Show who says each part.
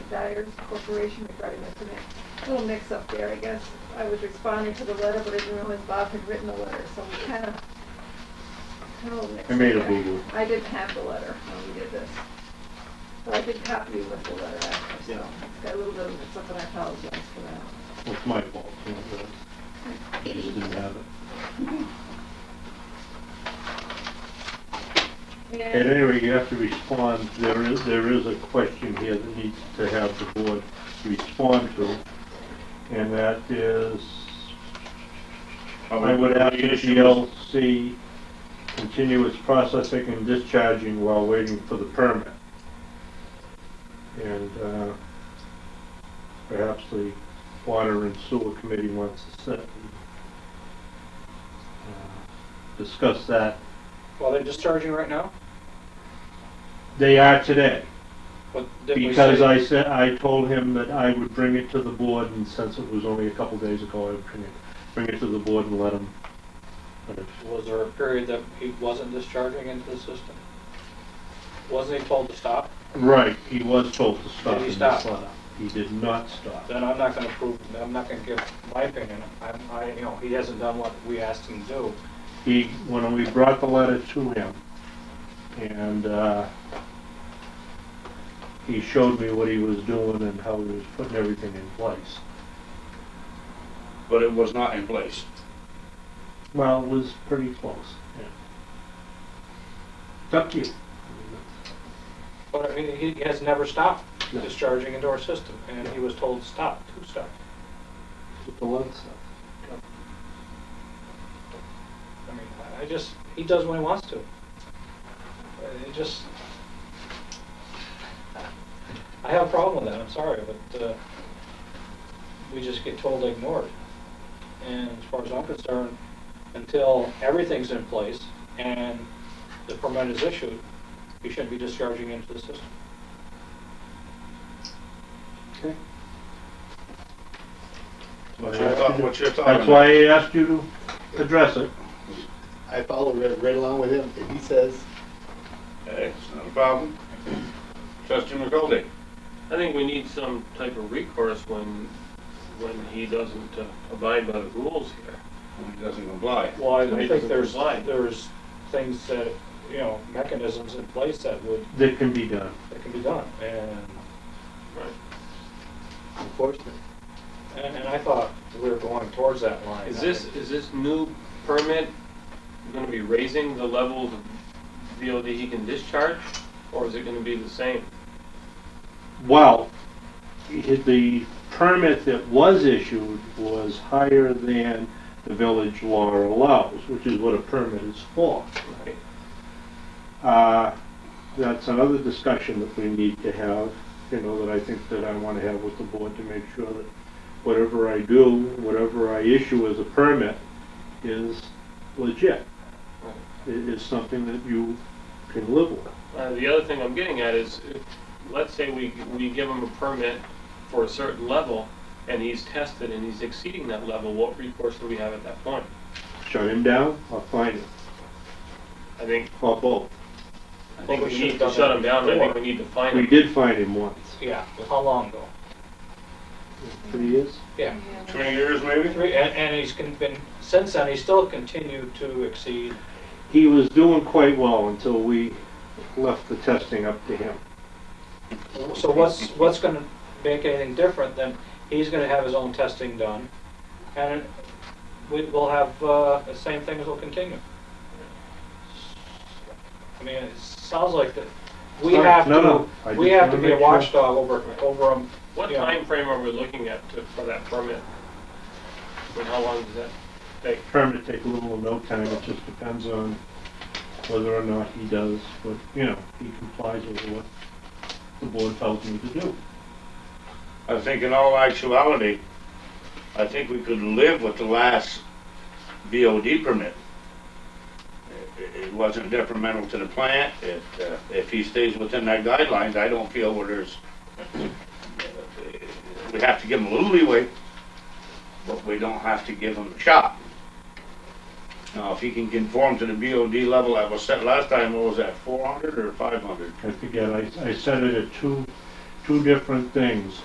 Speaker 1: Dyer Corporation regarding this, and a little mix-up there, I guess. I was responding to the letter, but I didn't realize Bob had written the letter, so we kind of, kind of mixed
Speaker 2: I made a
Speaker 1: up.
Speaker 2: boo-boo.
Speaker 1: I didn't have the letter when we did this. But I did copy you with the letter after, so
Speaker 2: Yeah.
Speaker 1: it's got a little bit of mix-up, and I apologize for that.
Speaker 2: Well, It's my fault, you know, but I just didn't have it. At
Speaker 1: And
Speaker 2: any rate, you have to respond, there is, there is a question here that needs to have the board respond to, and that is, I would ask if the LC continuous processing and discharging while waiting for the permit. And, uh, perhaps the Water and Sewer Committee wants to sit and, uh, discuss that.
Speaker 3: Well, they're discharging right now,
Speaker 2: They are today.
Speaker 3: but didn't we
Speaker 2: Because
Speaker 3: say-
Speaker 2: I said, I told him that I would bring it to the board, and since it was only a couple days ago, I would bring it, bring it to the board and let him. let him-
Speaker 3: Was there a period that he wasn't discharging into the system? Wasn't he told to stop?
Speaker 2: Right, he was told to stop.
Speaker 3: Did he
Speaker 2: in this
Speaker 3: stop?
Speaker 2: letter. He did not stop.
Speaker 3: Then I'm not gonna prove, I'm not gonna give my opinion. I'm, I, you know, he hasn't done what we asked him to do.
Speaker 2: He, when we brought the letter to him, and, uh, he showed me what he was doing and how he was putting everything in place.
Speaker 4: but it was not in place.
Speaker 2: Well, it was pretty close, yeah. It's up to you.
Speaker 3: But I mean, he has never stopped
Speaker 2: No.
Speaker 3: discharging into our system, and he was told to stop, to stop.
Speaker 2: With the letter stuff.
Speaker 3: I mean, I- I just, he does what he wants to. Uh, It just, I have a problem with that, I'm sorry, but uh, we just get totally ignored. And as far as I'm concerned, until everything's in place and the permit is issued, you shouldn't be discharging into the system.
Speaker 2: Okay.
Speaker 4: What's your thought, what's your thought? on
Speaker 2: That's why I asked you to address it.
Speaker 5: I follow right, right along with him, and he says,
Speaker 4: that? Hey, it's not a problem. Trustee McGoldy,
Speaker 6: I think we need some type of recourse when, when he doesn't uh, abide by the rules here.
Speaker 4: he doesn't comply.
Speaker 3: Well,
Speaker 6: I
Speaker 3: I think
Speaker 6: doesn't
Speaker 3: there's,
Speaker 6: comply.
Speaker 3: there's things that, you know, mechanisms in place that would,
Speaker 2: That can be done.
Speaker 3: that can be done, and
Speaker 5: enforcement.
Speaker 3: And, and I thought we were going towards that line.
Speaker 6: Is this, is this new permit gonna be raising the level of VOD he can discharge? Or is it gonna be the same?
Speaker 2: Well, it- the permit that was issued was higher than the village law allows, which is what a permit is for.
Speaker 6: Right.
Speaker 2: Uh, That's another discussion that we need to have, you know, that I think that I want to have with the board to make sure that whatever I do, whatever I issue as a permit is legit.
Speaker 6: Right.
Speaker 2: It is something that you can live with.
Speaker 6: Uh, the other thing I'm getting at is, if- let's say we, we give him a permit for a certain level, and he's tested and he's exceeding that level, what recourse do we have at that point?
Speaker 2: Shut him down or fine him,
Speaker 6: I think,
Speaker 2: or both.
Speaker 6: I think we
Speaker 3: should've
Speaker 6: need to
Speaker 3: done
Speaker 6: shut
Speaker 3: that
Speaker 6: him down, and I think
Speaker 3: before.
Speaker 6: we need to fine him.
Speaker 2: We did find him once.
Speaker 3: Yeah, well, how long ago?
Speaker 2: Three years?
Speaker 3: Yeah.
Speaker 4: Twenty years maybe?
Speaker 3: Three, and, and he's con- been, since then, he's still continued to exceed,
Speaker 2: He was doing quite well until we left the testing up to him.
Speaker 3: so what's, what's gonna make anything different than, he's gonna have his own testing done, and we, we'll have, uh, the same things will continue. I mean, it sounds like that, we
Speaker 2: Sorry,
Speaker 3: have
Speaker 2: no, no, I
Speaker 3: to, we
Speaker 2: just
Speaker 3: have to
Speaker 2: wanna
Speaker 3: be a
Speaker 2: make sure.
Speaker 3: watchdog over, over him.
Speaker 6: What
Speaker 3: Yeah.
Speaker 6: time frame are we looking at to- for that permit? And how long does that take?
Speaker 2: Permit take little or no time, it just depends on whether or not he does what, you know, he complies with what the board tells him to do.
Speaker 4: I think in all actuality, I think we could live with the last BOD permit. It- It wasn't detrimental to the plant. It, uh, if he stays within that guidelines, I don't feel where there's, we have to give him a little leeway, but we don't have to give him a shot. Now, if he can conform to the BOD level that was set last time, what was that, four hundred or five hundred?
Speaker 2: I forget, I, I set it at two, two different things.